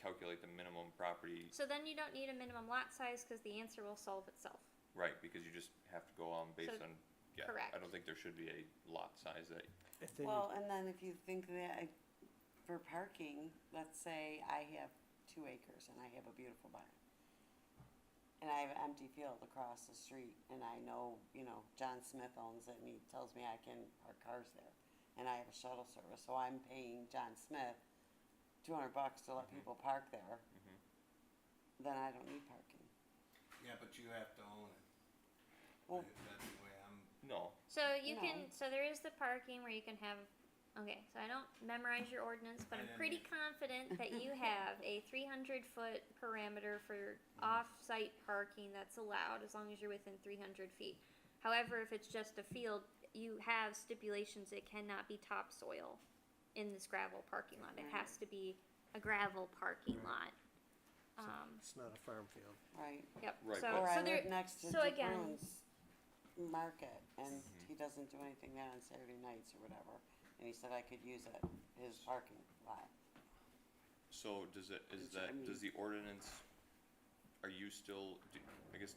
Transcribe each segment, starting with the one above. calculate the minimum property, So then you don't need a minimum lot size, cause the answer will solve itself. right, because you just have to go on based So- on, yeah, I correct. don't think there should be a lot size that, I think Well, and then if you think that I, for parking, let's say I have two acres and I have a beautiful barn. And I have an empty field across the street and I know, you know, John Smith owns it and he tells me I can park cars there. And I have a shuttle service, so I'm paying John Smith two hundred bucks to let Mhm. people park there. Then I don't need parking. Yeah, but you have to own it. Well, That's the way I'm, no, So you can, No. so there is the parking where you can have, okay, so I don't memorize your ordinance, but I'm pretty confident that you have a three hundred foot parameter for Mm-hmm. off-site parking that's allowed, as long as you're within three hundred feet. However, if it's just a field, you have stipulations, it cannot be topsoil in this gravel parking lot, it has to be a gravel parking lot. Um, it's not a farm field. right, yep, Right, so, but- or I so there, live next to so again- DeBruin's Market and Mm-hmm. Mhm. he doesn't do anything there on Saturday nights or whatever. And he said I could use it, his parking lot. So does it, is Which, I that, does the mean- ordinance, are you still, do, I guess,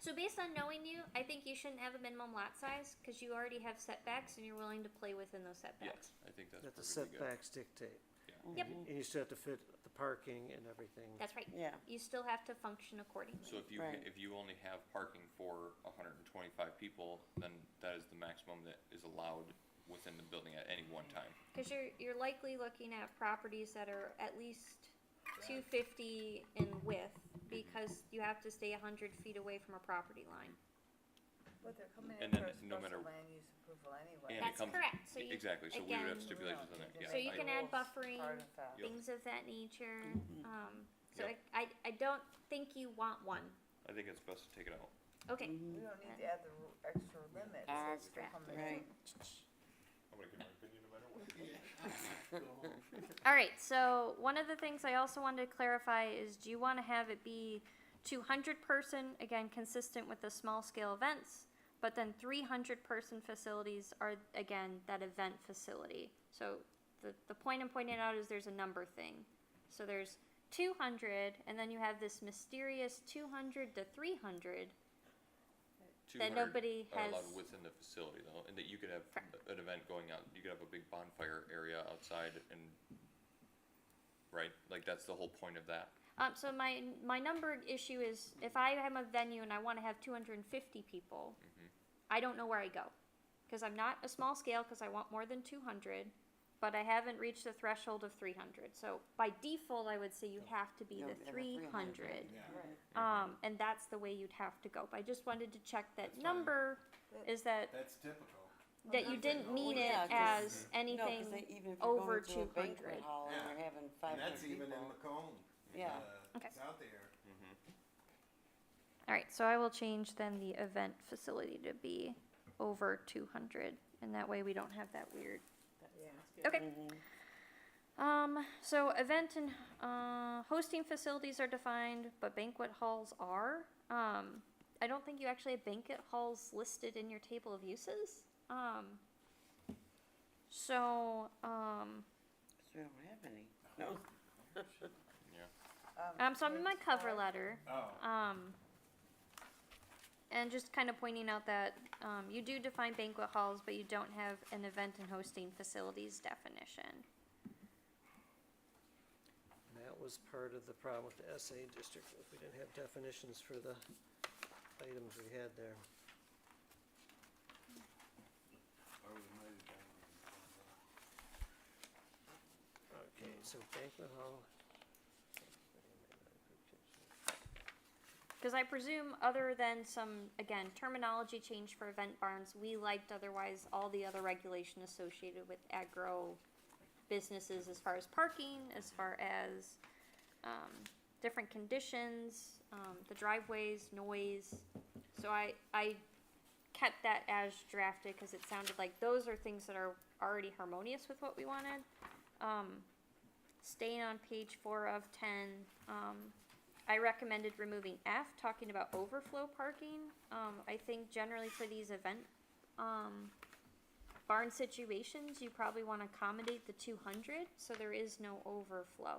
So based on knowing you, I think you shouldn't have a minimum lot size because you already have setbacks and you're willing to play within those setbacks. yes, I think that's That the perfectly good. setbacks dictate. Yep. Mm-hmm. Mhm. And you still have to fit the parking and everything. That's right. Yeah, You still have to function accordingly. So if you, ha- Right. if you only have parking for hundred and twenty-five people, then that is the maximum that is allowed within the building at any one time. Because you're you're likely looking at properties that are at least two fifty in width because you have to stay hundred feet away from a property line. But they're coming And then in for a no matter- special land use approval anyway. And it That's comes- correct. So you Exactly, so we would again- have stipulations on that, yeah. So you I- can add buffering, Yep. things of that nature. Um, so Mm-hmm. Yep. I, I I don't think you want one. I think it's best to take it out. Okay. We Mm-hmm. don't need to add the ru- extra limits. As for coming in. right. I'm gonna give my opinion no matter what. All right, so one of the things I also wanted to clarify is do you want to have it be 200 person, again, consistent with the small scale events, but then 300 person facilities are, again, that event facility. So the, the point I'm pointing out is there's a number thing. So there's 200, and then you have this mysterious 200 to 300 that 200 nobody Are has. allowed within the facility though, and that you could have Correct. a- an event going out, you could have a big bonfire area outside and, right, like that's the whole point of that. Um, so my my number issue is if I am a venue and I want to have 250 people, Mhm. I don't know where I go because I'm not a small scale because I want more than 200, but I haven't reached the threshold of 300. So by default, I would say you have to be You have to the have a 300. 300, yeah. Right. um, and that's the way you'd have to go. But I just wanted to check that That's fine. number That- is that That's typical. that you that's didn't fine. mean it Yeah, 'cause- as anything. No, 'cause they, even if you're over going to a 200. banquet hall and Yeah. you're having And five hundred that's people. even in Macomb. Yeah. Uh, Okay. It's out there. All right, so I will change then the event facility to be over 200, and that way we don't have that weird. Yeah. Okay. Mm-hmm. Um, so event and uh, hosting facilities are defined, but banquet halls are. Um, I don't think you actually have banquet halls listed in your table of uses. Um, so um, So we don't have any. No. um, so I'm in my page cover five. letter. Oh. Um, and just kind of pointing out that um, you do define banquet halls, but you don't have an event and hosting facilities definition. And that was part of the problem with the SA district, was we didn't have definitions for the items we had there. Or Oh, we might have done it. Okay, so banquet hall. Because I presume, other than some, again, terminology change for event barns, we liked otherwise all the other regulation associated with agro businesses as far as parking, as far as um, different conditions, um, the driveways, noise. So I, I kept that as drafted because it sounded like those are things that are already harmonious with what we wanted. Um, staying on page four of ten, um, I recommended removing F, talking about overflow parking. Um, I think generally for these event, um, barn situations, you probably wanna accommodate the two hundred, so there is no overflow.